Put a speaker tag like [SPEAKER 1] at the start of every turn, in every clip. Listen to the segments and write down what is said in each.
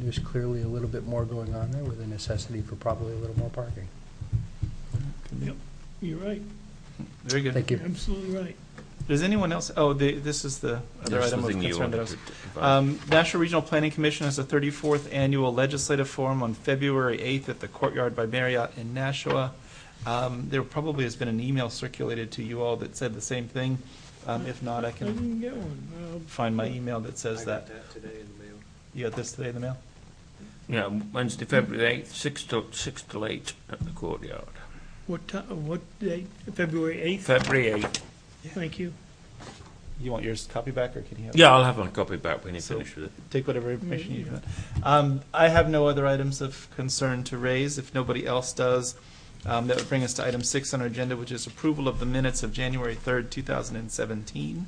[SPEAKER 1] there's clearly a little bit more going on there with a necessity for probably a little more parking.
[SPEAKER 2] You're right,
[SPEAKER 3] Very good.
[SPEAKER 1] Thank you.
[SPEAKER 2] absolutely right.
[SPEAKER 3] Does anyone else, oh, the, this is the other
[SPEAKER 4] There's
[SPEAKER 3] item of
[SPEAKER 4] something you
[SPEAKER 3] concern that I was.
[SPEAKER 4] wanted to advise.
[SPEAKER 3] Um, National Regional Planning Commission has a 34th Annual Legislative Forum on February 8th at the Courtyard by Marriott in Nashua. Um, There probably has been an email circulated to you all that said the same thing. Um, If not, I
[SPEAKER 2] I
[SPEAKER 3] can
[SPEAKER 2] didn't get one. Uh,
[SPEAKER 3] find my email that says that.
[SPEAKER 5] today in the mail.
[SPEAKER 3] You got this today in the mail?
[SPEAKER 4] Yeah, Wednesday, February 8th, 6 to, 6 till 8 at the courtyard.
[SPEAKER 2] What ti, what date, February 8th?
[SPEAKER 4] February 8th.
[SPEAKER 2] Thank you.
[SPEAKER 3] You want yours copy back, or can you have? it?
[SPEAKER 4] Yeah, I'll have my copy back when you
[SPEAKER 3] So-
[SPEAKER 4] finish with it.
[SPEAKER 3] take whatever information you want. Um, I have no other items of concern to raise. If nobody else does, um, that would bring us to item six on our agenda, which is approval of the minutes of January 3rd, 2017.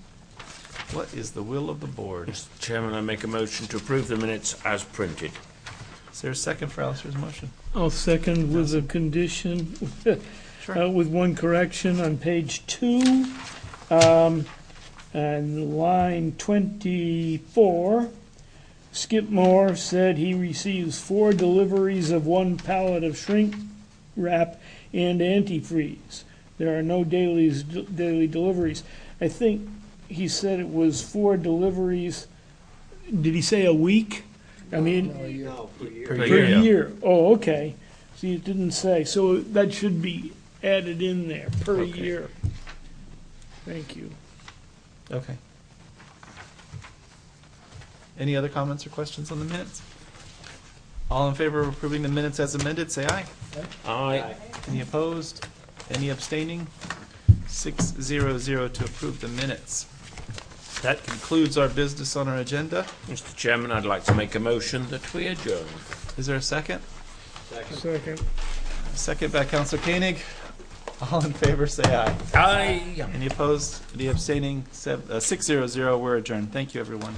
[SPEAKER 3] What is the will of the board?
[SPEAKER 4] Mr. Chairman, I make a motion to approve the minutes as printed.
[SPEAKER 3] Is there a second for Alistair's motion?
[SPEAKER 2] I'll second with a condition, uh,
[SPEAKER 3] Sure.
[SPEAKER 2] with one correction on page two, um, and line twenty-four. Skip Moore said he receives four deliveries of one pallet of shrink wrap and antifreeze. There are no dailies, daily deliveries. I think he said it was four deliveries, did he say a week? I mean.
[SPEAKER 5] No, for years.
[SPEAKER 4] Per
[SPEAKER 2] Per
[SPEAKER 4] year.
[SPEAKER 2] year, oh, okay. See, it didn't say, so that should be added in there, per
[SPEAKER 4] Okay.
[SPEAKER 2] year. Thank you.
[SPEAKER 3] Okay. Any other comments or questions on the minutes? All in favor of approving the minutes as amended, say aye.
[SPEAKER 4] Aye.
[SPEAKER 3] Any opposed? Any abstaining? Six zero zero to approve the minutes. That concludes our business on our agenda.
[SPEAKER 4] Mr. Chairman, I'd like to make a motion that we adjourn.
[SPEAKER 3] Is there a second?
[SPEAKER 2] Second.
[SPEAKER 3] Second by Council Koenig. All in favor, say aye.
[SPEAKER 4] Aye.
[SPEAKER 3] Any opposed? Any abstaining? Sev- uh, Six zero zero, we're adjourned. Thank you, everyone.